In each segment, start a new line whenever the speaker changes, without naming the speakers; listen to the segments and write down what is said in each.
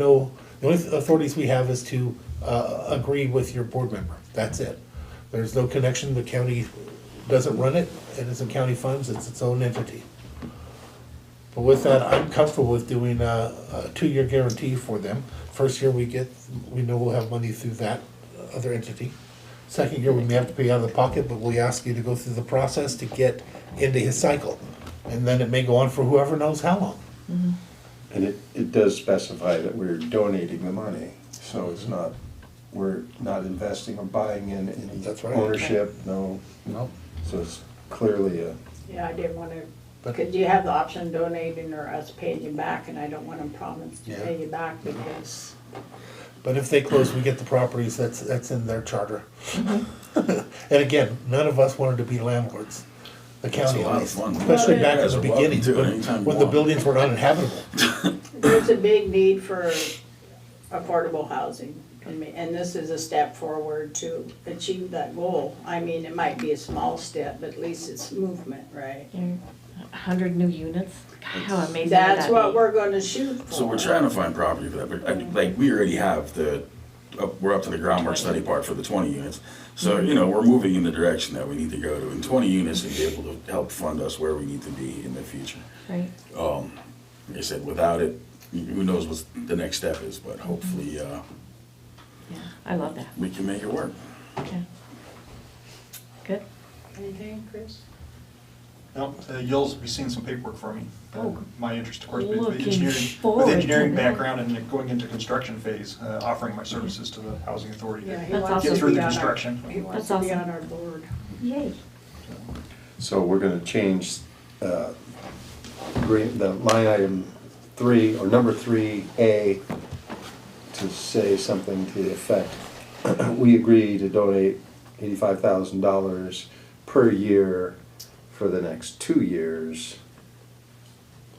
no, the only authorities we have is to uh, agree with your board member. That's it. There's no connection, the county doesn't run it, it isn't county funds, it's its own entity. But with that, I'm comfortable with doing a, a two-year guarantee for them. First year we get, we know we'll have money through that other entity. Second year, we may have to pay out of the pocket, but we ask you to go through the process to get into his cycle. And then it may go on for whoever knows how long.
And it, it does specify that we're donating the money, so
Mm-hmm.
it's not, we're not investing or buying in
That's
any
right.
ownership, no,
No.
so it's clearly a,
Yeah, I didn't wanna,
But-
cause you have the option donating or us paying you back, and I don't wanna promise to
Yeah.
pay you back because,
But if they close, we get the properties, that's, that's in their charter. And again, none of us wanted to be landlords, the county
Mm-hmm. a
at
lot of
least,
fun.
especially
Well,
back
it
in
is.
the
Guys are welcome
beginning,
to it
when,
anytime you
when the
want.
buildings were uninhabitable.
there's a big need for affordable housing. I mean, and this is a step forward to achieve that goal. I mean, it might be a small step, but at least it's movement, right?
hundred new units. God, how amazing would
That's
that
what
be?
we're gonna shoot for.
So we're trying to find property for that, but I- like, we already have the, up- we're up to the groundwork study part for the twenty units. So, you know, we're moving in the direction that we need to go to, and twenty units would be able to help fund us where we need to be in the future. Um,
Right.
Like I said, without it, who knows what the next step is, but hopefully, uh,
Yeah, I love that.
we can make it work.
Yeah. Good.
Anything, Chris?
Well, uh, you'll be seeing some paperwork from me. Uh,
Oh.
My interest, of course, being with
Looking
engineering,
forward
with
to
engineering
that.
background and going into construction phase, uh, offering my services to the housing authority.
Yeah, he
That's
wants to
awesome.
Get through
be
the
on our-
construction.
He wants
That's
to be
awesome.
on our board.
Yay.
so we're gonna change, uh, re- the line item three, or number three A, to say something to the effect, we agree to donate eighty-five thousand dollars per year for the next two years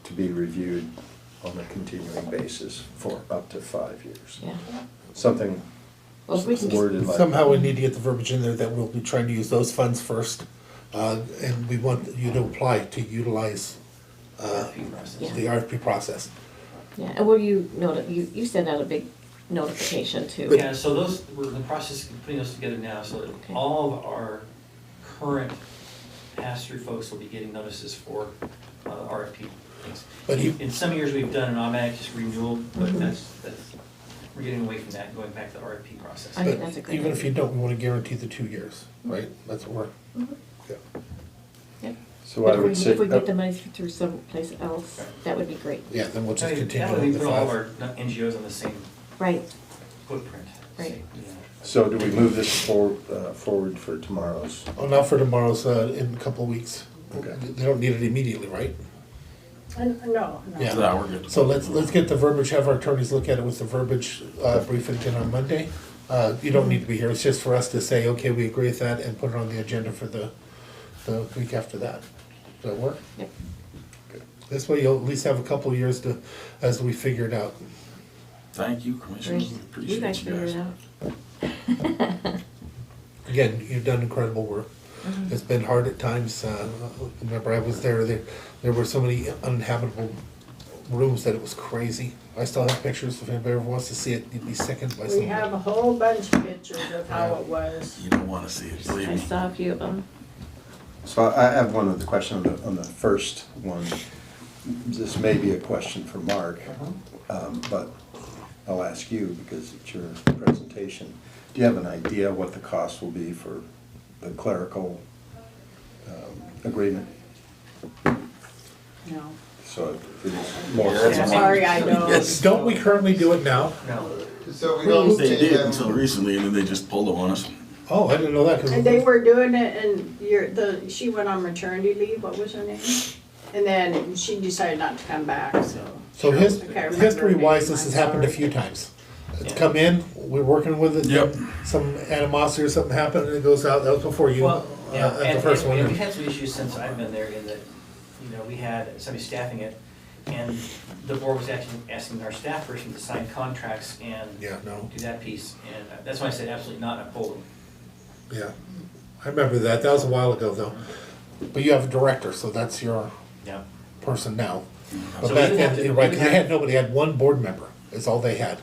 to be reviewed on a continuing basis for up to five years.
Yeah.
Something
Well, if we can just,
worded like.
Somehow we need to get the verbiage in there that we'll be trying to use those funds first, uh, and we want you to apply to utilize, uh, the RFP process.
yeah, and will you noti- you, you send out a big notification too.
Yeah, so those, we're in the process of putting those together now, so that
Okay.
all of our current pass-through folks will be getting notices for uh, RFP things.
But you- Mm-hmm.
In some years, we've done an automatic just renewal, but
Mhm.
that's, that's, we're getting away from that, and going back to the RFP process.
I think that's a
But
good
even if
idea. Mm-hmm.
you don't, we wanna guarantee the two years, right? That's what we're. yeah.
Yep.
So I
If we-
would say, uh,
If we get the money through someplace else, that would be great.
Yeah, then we'll just
That way-
continue
That way,
with
we
the
put all of
five.
our NGOs on the same
Right.
footprint.
Right.
same, you know.
so do we move this for, uh, forward for tomorrow's?
Oh, not for tomorrow's, uh, in a couple of weeks.
Okay.
They don't need it immediately, right?
And, no, no.
Yeah.
Nah, we're good.
So let's, let's get the verbiage, have our attorneys look at it with the verbiage uh, briefing again on Monday. Uh, You don't need to be here, it's just for us to say, okay, we agree with that and put it on the agenda for the, the week after that. Does that work?
Yep.
This way you'll at least have a couple of years to, as we figure it out.
Thank you,
Great.
Commissioners,
You guys
appreciate you
figure it
guys.
out.
Again, you've done incredible work.
Mm-hmm.
It's been hard at times. uh, Remember, I was there, there, there were so many uninhabitable rooms that it was crazy. I still have pictures, if anybody ever wants to see it, you'd be sickened by some
We
of it.
have a whole bunch of pictures of how it was.
You don't wanna see it, believe
I
me.
saw a few of them.
So I I have one other question on the, on the first one. This may be a question for Mark, um, but I'll ask you because it's your presentation. Do you have an idea what the cost will be for the clerical um, agreement?
No.
So it's more.
Yeah, that's-
Sorry, I know.
Yes.
Don't we currently do it now?
No,
So we
Well,
need
They did
to,
until
um,
recently, and then they just pulled them on us.
Oh, I didn't know that. 'cause-
And they were doing it and your, the, she went on maternity leave, what was her name? And then she decided not to come back, so.
So his,
I can't remember her
history wise,
name,
this has
I'm
happened a
sorry.
few times. It's
Yeah.
come in, we're working with it.
Yep.
Some animosity or something happened and it goes out, that was before you, uh,
Well, yeah,
at
and-
the first
and- and
one.
we've had some issues since I've been there in that, you know, we had somebody staffing it, and the board was actually asking our staff person to sign contracts and
Yeah, no,
do that piece, and that's why I said absolutely not uphold.
yeah. I remember that, that was a while ago though. But you have a director, so that's your
Yeah.
person now.
So
But
we
back
would have
then,
to-
you're right,
we would
'cause they
have-
had nobody, they had one board member. is all they had.